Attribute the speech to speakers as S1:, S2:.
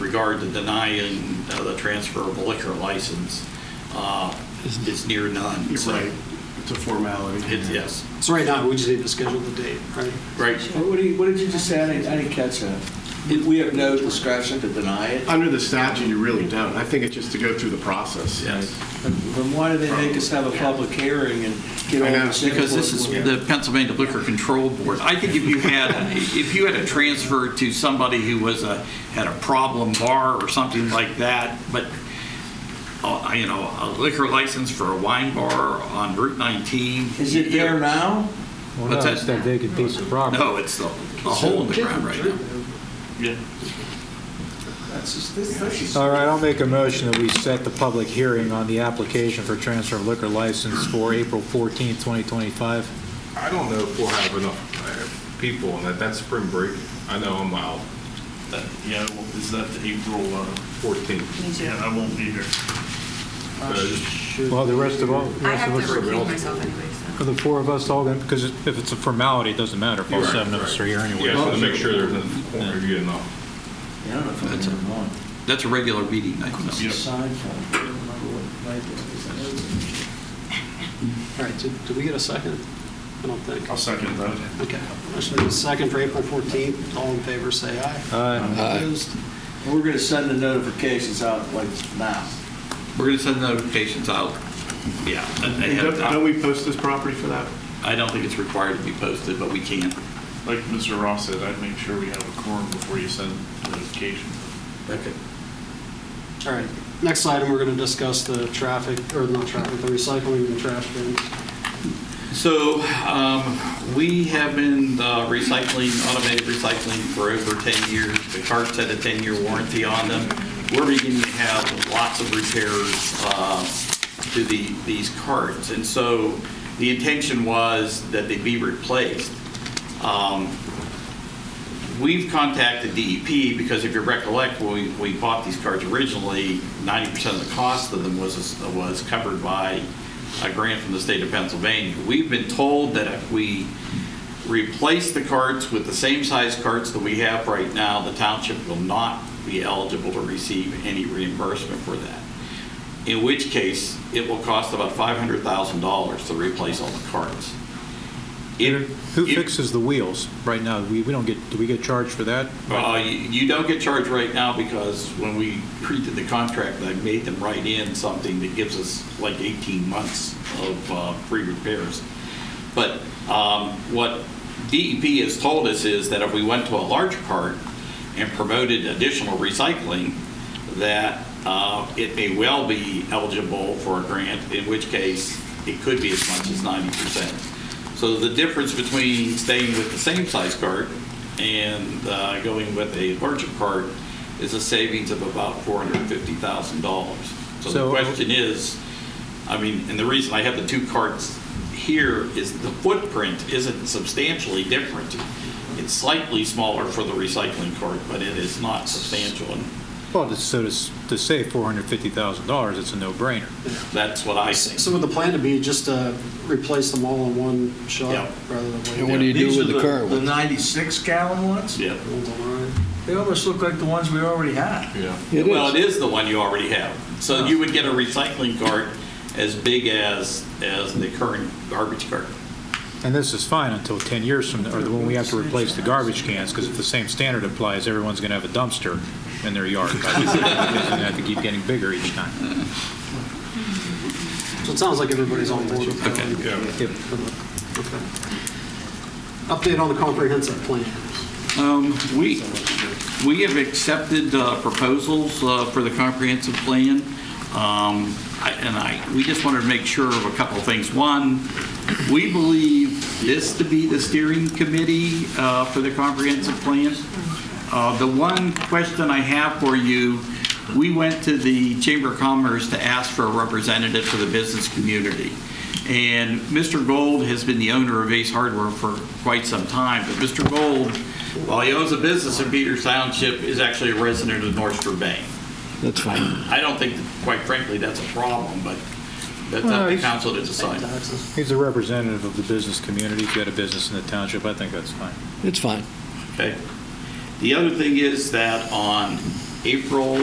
S1: regard to denying uh, the transfer of a liquor license, uh, it's near none.
S2: You're
S1: so
S2: right. It's a formality.
S1: it- Yes,
S3: So right now, we just need to schedule the date, right?
S1: right.
S4: What did you, what did you just say? I didn't, I didn't catch that. We- We have no discretion to deny it?
S2: Under the statute, you really don't. I think it's just to go through the process.
S1: Yes.
S4: Then then why do they make us have a public hearing and get
S2: I
S4: all
S2: know,
S4: this?
S1: Because this is
S4: paperwork?
S1: the Pennsylvania Liquor Control Board. I think if you had, if you had a transfer to somebody who was a, had a problem bar or something like that, but, uh, you know, a liquor license for a wine bar on Route 19.
S4: Is it there now?
S5: Well,
S1: What's
S5: no,
S1: that?
S5: it's that vacant piece of property.
S1: No, it's the, the hole in the ground right now.
S4: That's just, this, this is.
S5: All right, I'll make a motion that we set the public hearing on the application for transfer of liquor license for April 14th, 2025.
S6: I don't know if we'll have enough uh, people on that. That's spring break. I know I'm out
S7: That- Uh, Yeah, well, is that the April, uh,
S6: 14.
S7: yeah, I won't be here.
S5: Well, the rest of all, the
S8: I
S5: rest of
S8: have to
S5: us,
S8: recuse myself anyway,
S5: are the four of us all, going because if it's a formality, it doesn't matter if all
S6: Right,
S5: seven of us
S6: right.
S5: are here anyway.
S6: Yeah, so to make sure there's a corner you get enough.
S4: I don't know if I'm
S1: That's
S4: in the wrong.
S1: That's a regular meeting night. though.
S4: It's a sign for it. I don't remember what night it is. I know it's-
S3: All right, did did we get a second? I don't think.
S7: I'll second that.
S3: Okay, motion is second for April 14th. All in favor, say aye.
S5: Aye.
S3: Opposed?
S4: And we're going to send the notifications out like now.
S1: We're going to send notifications out, yeah.
S2: And
S1: ahead of
S2: Don't don't
S1: time.
S2: we post this property for that?
S1: uh, I don't think it's required to be posted, but we can.
S7: Like Mr. Ross said, I'd make sure we have a quorum before you send notification.
S1: Okay.
S3: All right, next item, we're going to discuss the traffic, or not traffic, the recycling and trash bins.
S1: So um, we have been uh, recycling, automated recycling for over 10 years. The carts had a 10-year warranty on them. We're beginning to have lots of repairs uh, to the, these carts. And so the intention was that they be replaced. Um, We've contacted DEP because if you recollect, when we, we bought these cards originally, 90% of the cost of them was, was covered by a grant from the state of Pennsylvania. We've been told that if we replace the carts with the same size carts that we have right now, the township will not be eligible to receive any reimbursement for that. In which case, it will cost about $500,000 to replace all the carts. If-
S5: Who
S1: if-
S5: fixes the wheels right now? We we don't get, do we get charged for that?
S1: well, you Uh, you don't get charged right now because when we created the contract, I made them write in something that gives us like 18 months of uh, free repairs. But um, what DEP has told us is that if we went to a large cart and promoted additional recycling, that uh, it may well be eligible for a grant, in which case it could be as much as 90%. So the difference between staying with the same size cart and uh, going with a larger cart is a savings of about $450,000. So the
S5: So-
S1: question is, I mean, and the reason I have the two carts here is the footprint isn't substantially different. It's slightly smaller for the recycling cart, but it is not substantial, and
S5: Well, to- so to s- to save $450,000, it's a no-brainer.
S1: that's what I think.
S3: So would the plan to be just to replace them all in one shot
S1: Yeah.
S3: rather than waiting?
S9: And what do you do
S4: These
S9: with
S4: are
S9: the current
S4: The
S9: ones?
S4: 96 gallon ones?
S1: Yeah.
S3: One's all right.
S4: They almost look like the ones we already have.
S6: Yeah.
S9: It
S1: Well,
S9: is.
S1: it is the one you already have. So you would get a recycling cart as big as, as the current garbage cart.
S5: And this is fine until 10 years from, or when we have to replace the garbage cans, because if the same standard applies, everyone's going to have a dumpster in their yard. It's going to have to keep getting bigger each time.
S3: So it sounds like everybody's on board with that.
S1: Okay,
S6: yeah.
S5: Yep.
S3: Okay. Update on the comprehensive plan.
S1: Um, We, we have accepted uh, proposals uh, for the comprehensive plan, Um, I- and I, we just wanted to make sure of a couple of things. One, we believe this to be the steering committee uh, for the comprehensive plan. Uh, The one question I have for you, we went to the Chamber of Commerce to ask for a representative for the business community. And Mr. Gold has been the owner of Ace Hardware for quite some time, but Mr. Gold, while he owns a business in Peters Township, is actually a resident of North Shore Bay.
S9: That's fine.
S1: I don't think, quite frankly, that's a problem, but that's
S5: Well,
S1: up to
S5: he's-
S1: council to decide.
S3: Taxes.
S5: He's a representative of the business community. If you had a business in the township, I think that's fine.
S9: It's fine.
S1: Okay. The other thing is that on April